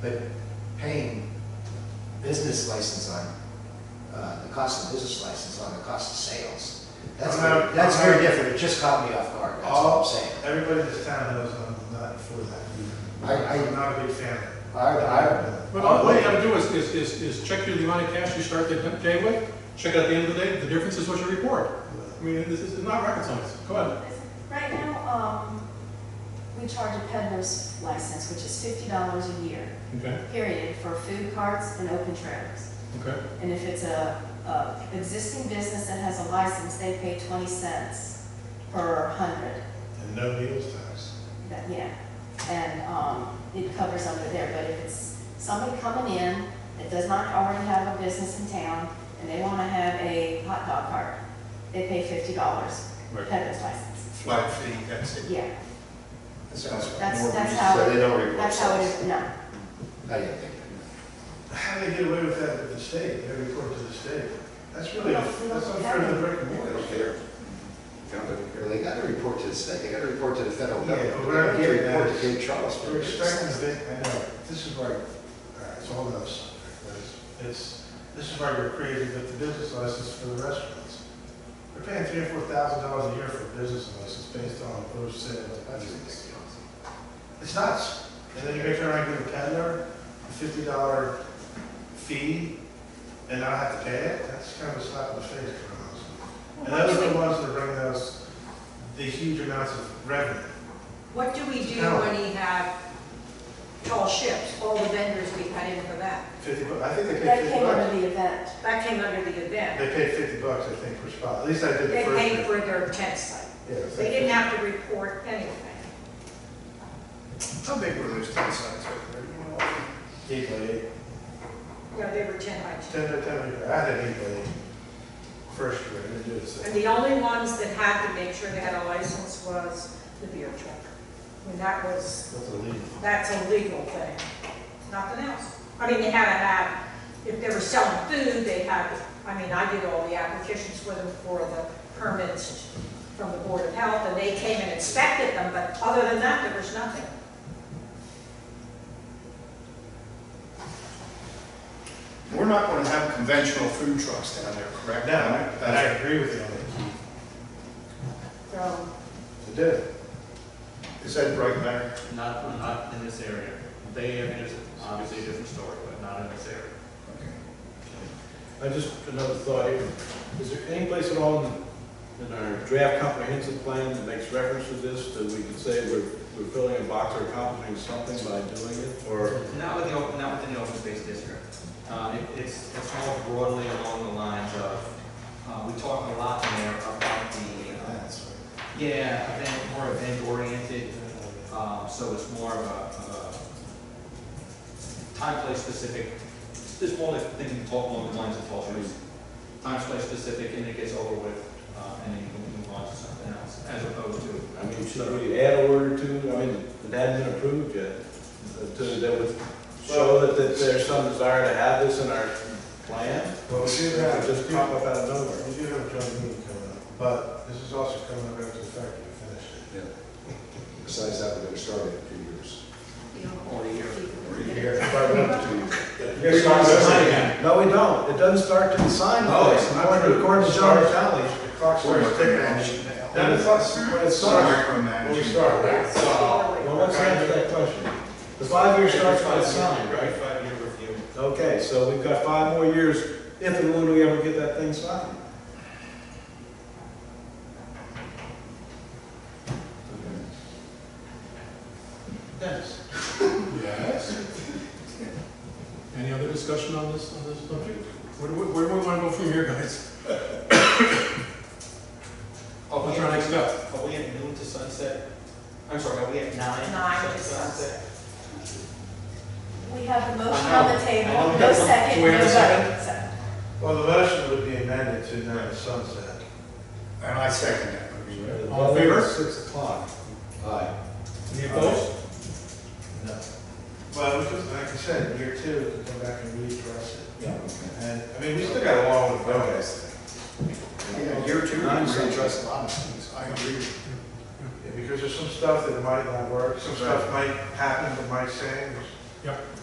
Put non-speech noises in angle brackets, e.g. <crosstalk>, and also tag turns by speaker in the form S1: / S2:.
S1: But paying business license on, uh, the cost of business license on the cost of sales, that's, very- that's very different, it just caught me off guard, that's all I'm saying.
S2: Everybody in this town knows I'm not for that.
S1: I- I-
S2: I'm not a big fan. of
S3: Oh.
S1: I, I,
S2: it.
S4: But all all you gotta do is, is, is, is check your the amount of cash you start the day with, check it at the end of the day, the difference is what you report. I mean, this is not rocket science, go ahead.
S5: Right now, um, we charge a peddler's license, which is fifty dollars a year,
S4: Okay,
S5: period, for food carts and open trailers.
S4: okay,
S5: And if it's a, a existing business that has a license, they pay twenty cents per hundred,
S2: And no meals tax.
S5: that, yeah. And, um, it covers under there, but if it's somebody coming in that does not already have a business in town and they wanna have a hot dog cart, they pay fifty dollars,
S4: Right.
S5: peddler's license,
S3: flat fee, that's it.
S5: yeah.
S1: that sounds,
S5: That's,
S1: more
S5: that's
S1: reasonable.
S5: how,
S3: So they don't report
S5: that's how it
S3: sales.
S5: is, no.
S1: I didn't think of
S2: How do they get away with that with the state? They report to the state. That's really,
S5: Well, we
S2: that's
S5: don't
S2: unfair to
S5: have
S2: the brick and
S3: They
S2: mortar.
S3: don't care. They don't
S1: that. Well, they gotta report to the state, they gotta report to the federal
S2: Yeah,
S1: government,
S2: but
S1: they
S2: we're not
S1: gotta
S2: getting that.
S1: report to Cape Charles.
S2: We're expecting the big, I know, this is why, uh, it's all about something. It's- It's, this is why we're creating the the business license for the restaurants. We're paying three or four thousand dollars a year for a business license based on gross sales.
S1: That's ridiculous.
S2: It's nuts. And then you're gonna turn around and give a peddler a fifty dollar fee and not have to pay it? That's kind of a slap in the face for us. And those are the ones that are bringing us the huge amounts of revenue.
S6: What do we do
S2: No.
S6: when we have tall ships, all the vendors we had in for that?
S2: Fifty, bu- I think they
S5: That
S2: paid fifty
S5: came
S2: bucks.
S5: under the event.
S6: That came under the event.
S2: They paid fifty bucks, I think, per spot. At least I did
S6: They
S2: the first
S6: paid
S2: year.
S6: for their tent site.
S2: Yeah, it was
S6: They
S2: like
S6: didn't have to report anything.
S3: care. How big were those ten signs right there? You know,
S2: Eight by eight,
S6: No, they were ten by ten.
S2: ten by ten, I had an eight by eight first year, I didn't do it
S6: And
S2: second.
S6: the only ones that had to make sure they had a license was the beer truck. I mean, that was,
S2: That's illegal.
S6: that's a legal thing, nothing else. I mean, they had to have, if they were selling food, they had, I mean, I did all the applications for them for the permits from the Board of Health, and they came and inspected them, but other than that, there was nothing.
S3: We're not going to have conventional food trucks down there, correct?
S2: No, and I agree with you on that.
S6: So,
S2: They did.
S3: Is that right, Mayor?
S7: Not, not in this area. They, I mean, it's obviously a different story, but not in this area.
S8: I just, another thought here, is there any place at all in, in our draft comprehensive plan that makes reference to this, that we can say we're, we're filling a box or accomplishing something by doing it, or?
S7: Not with the, op- not within the open space district. Uh, it- It's, it's more broadly along the lines of, uh, we talk a lot in there about the, uh,
S2: That's right.
S7: yeah, event, more event-oriented, um, so it's more of a, of a time, place specific. There's more like thing you talk along the lines of tall trees. Time, place specific, and it gets over with, uh, and then you can move on to something else, as opposed to.
S8: I mean, should we add a word or two, I mean, it hadn't been approved yet, uh, to, that would show that, that there's some desire to have this in our plan?
S2: Well, we
S8: It
S2: do
S8: would
S2: have,
S8: just pop up out of nowhere.
S2: we do have a joint meeting coming up, but this is also coming up after the fact we finish it.
S1: Besides that, we're gonna start in a few years.
S6: you know.
S7: Or a year.
S2: Probably not two years.
S8: No, we don't, it doesn't start to the sign.
S2: Oh, it's not true.
S8: According to John Talley,
S2: The clock starts ticking on you now.
S8: That is
S2: us. When it starts, when we
S3: Micromanaging.
S2: start, right?
S8: Well, let's answer that question. The five-year starts by the sign, right?
S7: Five-year review.
S8: Okay, so we've got five more years, if and when we ever get that thing signed.
S2: Yes.
S4: Yes. <laughs> Any other discussion on this, on this subject? Where, do we- where do we wanna go from here, guys?
S7: Are we
S4: What's our next
S7: at,
S4: step?
S7: are we at noon to sunset? I'm sorry, are we at nine?
S6: Nine to
S5: We have the motion on the table, no second,
S4: Do we
S5: no
S4: have a
S5: vote.
S2: Well, the motion would be amended to nine sunset.
S3: And I second that.
S4: All in favor?
S8: Six o'clock.
S1: Aye.
S4: Any opposed?
S2: No. Well, because like I said, year two, we can come back and readdress it.
S8: Yeah.
S2: And, I mean, we still got a long way to go.
S3: Yeah, year two,
S8: Nine
S3: I'm going
S8: cents.
S3: to address a lot of things. I agree.
S2: Yeah, Because there's some stuff that might not work, some stuff might happen, that might change.
S4: Yep.